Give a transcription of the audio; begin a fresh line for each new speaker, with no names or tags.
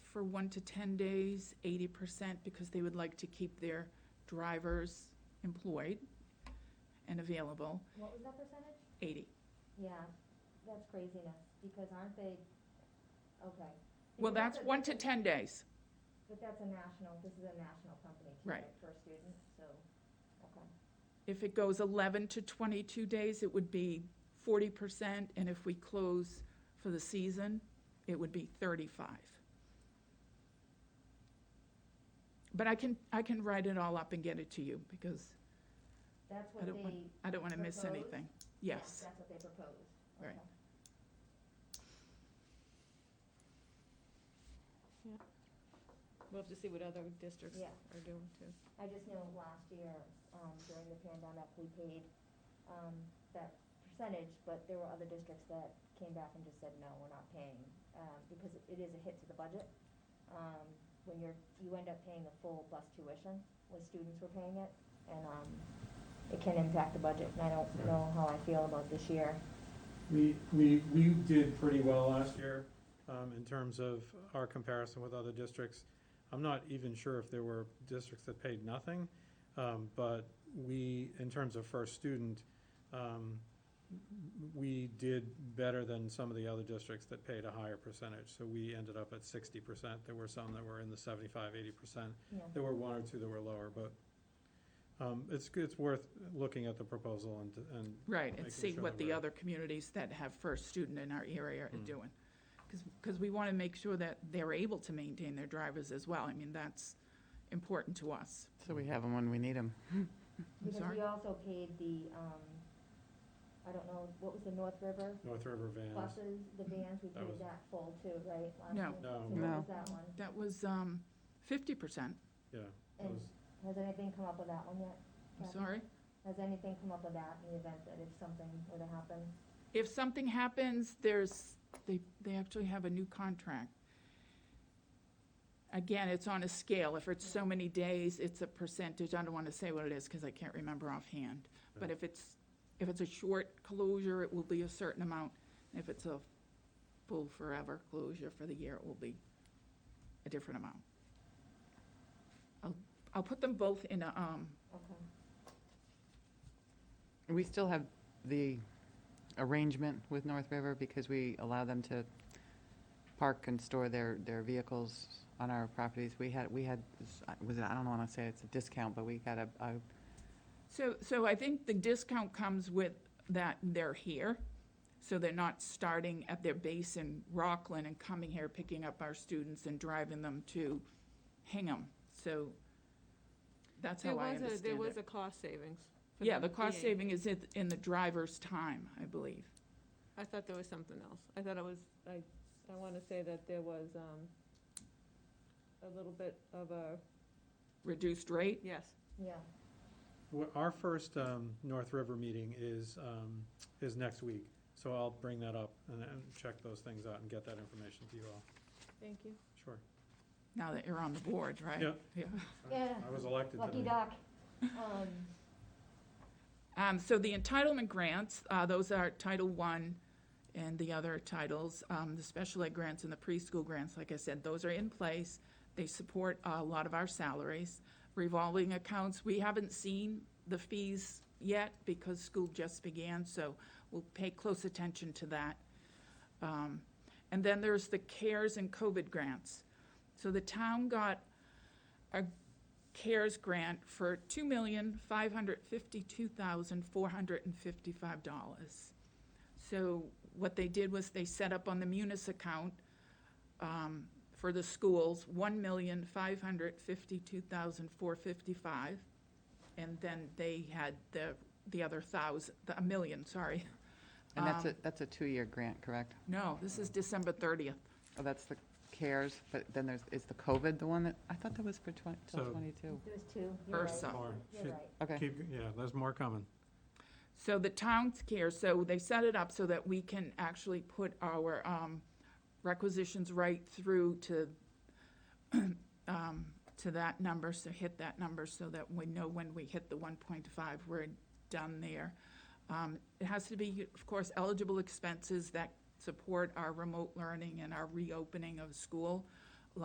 for one to 10 days, 80%, because they would like to keep their drivers employed and available,
What was that percentage?
80.
Yeah, that's craziness, because aren't they, okay.
Well,
Because
that's
a-
one to 10 days.
But that's a national, this is a national company too,
Right.
right, for students, so, okay.
If it goes 11 to 22 days, it would be 40%, and if we close for the season, it would be 35. But I can, I can write it all up and get it to you, because
That's
I
what
don't want-
they.
I don't want to miss
Proposed?
anything.
yeah,
Yes,
That's what they proposed.
Right.
Okay.
We'll have to see what other districts
Yeah.
are doing too.
I just know last year, um, during the pandemic, we paid, um, that percentage, but there were other districts that came back and just said, no, we're not paying, um, because it- it is a hit to the budget. Um, when you're, you end up paying the full bus tuition, when students were paying it, and, um, it can impact the budget, and I don't know how I feel about this year.
We, we, we did pretty well last year, um, in terms of our comparison with other districts. I'm not even sure if there were districts that paid nothing, um, but we, in terms of first student, um, we did better than some of the other districts that paid a higher percentage. So we ended up at sixty percent. There were some that were in the 75, 80 percent.
Yeah.
There were one or two that were lower, but, um, it's, it's worth looking at the proposal and, and
right, and
making
see
sure
what
that
the
we're-
other communities that have first student in our area are
Mm.
doing. Because we want to make sure that they're able to maintain their drivers as well. I mean, that's important to us.
So we have them when we need them.
I'm
Because
sorry?
we also paid the, um, I don't know, what was the North River
North River vans.
buses, the vans, we
Mm-hmm. That
paid
was-
that full too, right? last
No.
year?
No.
So what
No.
was that one?
That was um, 50%.
Yeah, that
And
was-
has anything come up with that one yet?
I'm
Kathy?
sorry.
Has anything come up with that in the event that if something were to happen?
If something happens, there's, they, they actually have a new contract. Again, it's on a scale. If it's so many days, it's a percentage. I don't want to say what it is because I can't remember offhand. But
Yeah.
if it's, if it's a short closure, it will be a certain amount. If it's a full forever closure for the year, it will be a different amount. I'll, I'll put them both in a, um,
Okay.
We still have the arrangement with North River because we allow them to park and store their, their vehicles on our properties. We had, we had, this- I- was it, I don't want to say it's a discount, but we got a, a,
So, so I think the discount comes with that they're here, so they're not starting at their base in Rockland and coming here, picking up our students and driving them to Hingham. So that's
There
how I
was a, there
understand
was
it.
a cost savings. for
Yeah, the
them
cost
being-
saving is in, in the driver's time, I believe.
I thought there was something else. I thought it was, I, I want to say that there was, um, a little bit of a,
Reduced rate?
yes,
Yeah,
Well, Our first um, North River meeting is, um, is next week, so I'll bring that up and and check those things out and get that information to you all.
thank you.
Sure.
Now that you're on the board, right?
Yeah.
Yeah.
Yeah.
I was elected
lucky
today.
duck. Um,
Um, so the entitlement grants, uh, those are Title I and the other titles, um, the special ed grants and the preschool grants, like I said, those are in place. They support a lot of our salaries. Revolving accounts, we haven't seen the fees yet because school just began, so we'll pay close attention to that. Um, and then there's the CARES and COVID grants. So the town got a CARES grant for two million, five hundred fifty-two thousand, four hundred and fifty-five dollars. So what they did was they set up on the Munis account, um, for the schools, one million, five hundred fifty-two thousand, four fifty-five. And then they had the, the other thousand, the, a million, sorry.
and that's a,
Um,
that's a two-year grant, correct?
No, this is December thirtieth.
Oh, that's the CARES, but then there's, is the COVID the one that, I thought that was for twenty, till
So-
twenty-two.
there was two, you're right,
Ursa.
Lauren,
you're right.
Okay.
keep- Yeah, there's more coming.
So the town's care, so they set it up so that we can actually put our um, requisitions right through to, um, to that number, so hit that number so that we know when we hit the one point five, we're done there. Um, It has to be, of course, eligible expenses that support our remote learning and our reopening of school.